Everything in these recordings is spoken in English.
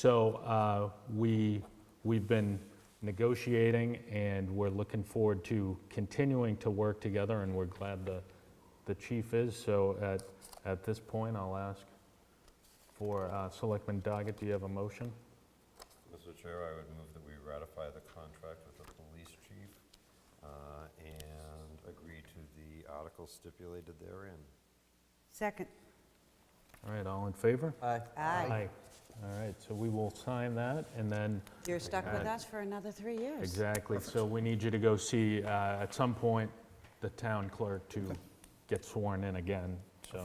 So uh, we, we've been negotiating, and we're looking forward to continuing to work together, and we're glad the, the chief is. So at, at this point, I'll ask for uh, Selectman Doggett, do you have a motion? Mr. Chair, I would move that we ratify the contract with the police chief uh, and agree to the article stipulated therein. Second. All right, all in favor? Aye. Aye. All right, so we will sign that, and then, You're stuck with Aye. us for another three years. exactly, so we need you to go see, uh, at some point, the town clerk to get sworn in again, so.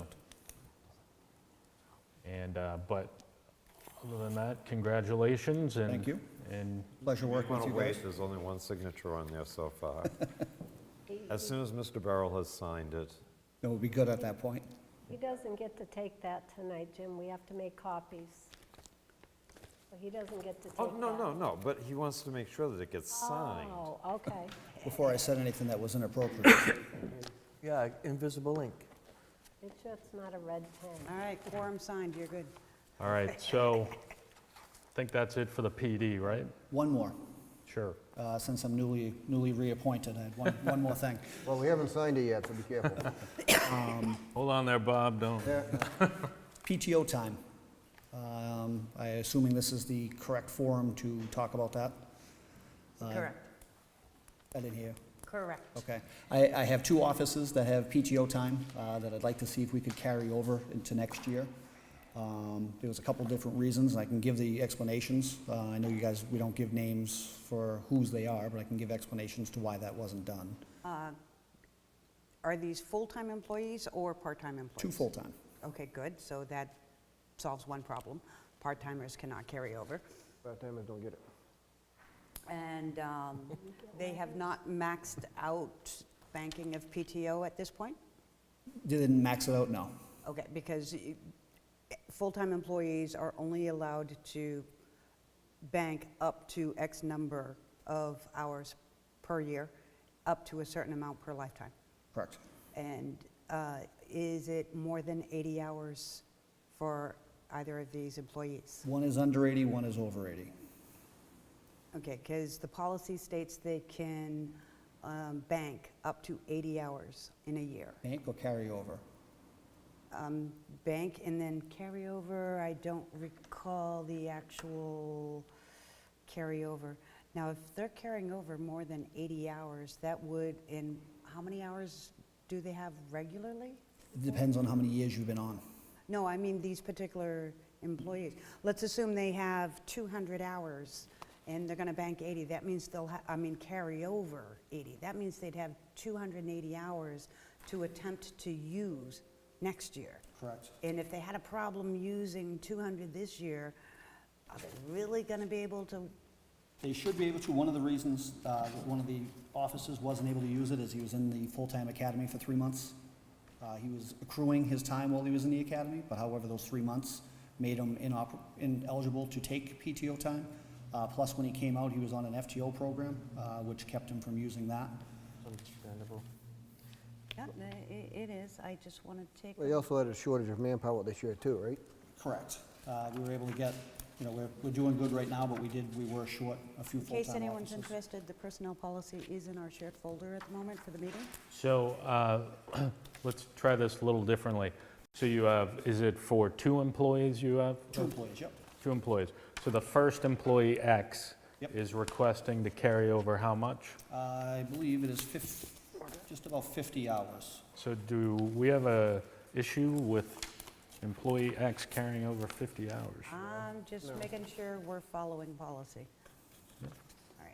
And, uh, but, other than that, congratulations, and... Thank you. And, Pleasure working with Well, you wait, guys. there's only one signature on there so far. As soon as Mr. Barrell has signed it, It would be good at that point. He doesn't get to take that tonight, Jim. We have to make copies. So he doesn't get to take that. oh, no, no, no, but he wants to make sure that it gets signed. Oh, okay. Before I said anything that was inappropriate. Yeah, invisible ink. Make sure it's not a red pen. All right, quorum signed, you're good. all right, so, I think that's it for the PD, right? One more, Sure. uh, since I'm newly, newly reappointed, I had one, one more thing. Well, we haven't signed it yet, so be careful. Hold on there, Bob, don't... PTO time. Um, I assuming this is the correct forum to talk about that? Correct, I didn't hear. correct. Okay. I, I have two offices that have PTO time uh, that I'd like to see if we could carry over into next year. Um, There was a couple different reasons, and I can give the explanations. Uh, I know you guys, we don't give names for whose they are, but I can give explanations to why that wasn't done. Are these full-time employees or part-time employees? Two full-time. Okay, good, so that solves one problem. Part-timers cannot carry over. Part-timers don't get it. And um, they have not maxed out banking of PTO at this point? Didn't max it out, no. Okay, because y- full-time employees are only allowed to bank up to X number of hours per year, up to a certain amount per lifetime. Correct. And uh, is it more than 80 hours for either of these employees? One is under 80, one is over 80. Okay, because the policy states they can um, bank up to 80 hours in a year. Bank or carry over? um, bank and then carryover, I don't recall the actual carryover. Now, if they're carrying over more than 80 hours, that would, in, how many hours do they have regularly? It Depends on how many years you've been on. No, I mean these particular employees. Let's assume they have 200 hours and they're going to bank 80. That means they'll, ha- I mean, carry over 80. That means they'd have 280 hours to attempt to use next year. Correct. And if they had a problem using 200 this year, are they really going to be able to? They should be able to, one of the reasons uh, that one of the officers wasn't able to use it is he was in the full-time academy for three months. Uh, He was accruing his time while he was in the academy, but however, those three months made him inop- ineligible to take PTO time. Uh, Plus, when he came out, he was on an FTO program, uh, which kept him from using that. Understandable. Yeah, it is. I just want to take. Well, you also had a shortage of manpower this year too, right? Correct. Uh, We were able to get, you know, we're we're doing good right now, but we did, we were short a few In case full-time anyone's officers. interested, the personnel policy is in our shared folder at the moment for the meeting. So uh, let's try this a little differently. So you have, is it for two employees you have? Two employees, yep. Two employees. So the first employee X Yep. is requesting to carry over how much? Uh, I believe it is fif, just about 50 hours. So do we have a issue with employee X carrying over 50 hours? I'm just making sure we're following policy. All right.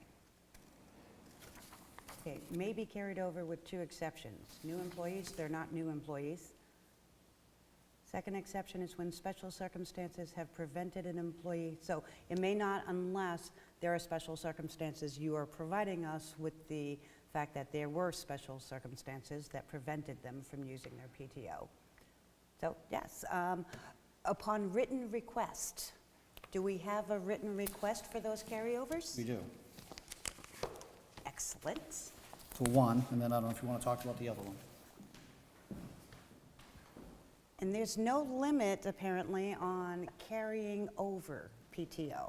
Okay, may be carried over with two exceptions. New employees, they're not new employees. Second exception is when special circumstances have prevented an employee, so it may not unless there are special circumstances. You are providing us with the fact that there were special circumstances that prevented them from using their PTO. So, yes, um, upon written request, do we have a written request for those carryovers? We do. Excellent. For one, and then I don't know if you want to talk about the other one. And there's no limit, apparently, on carrying over PTO.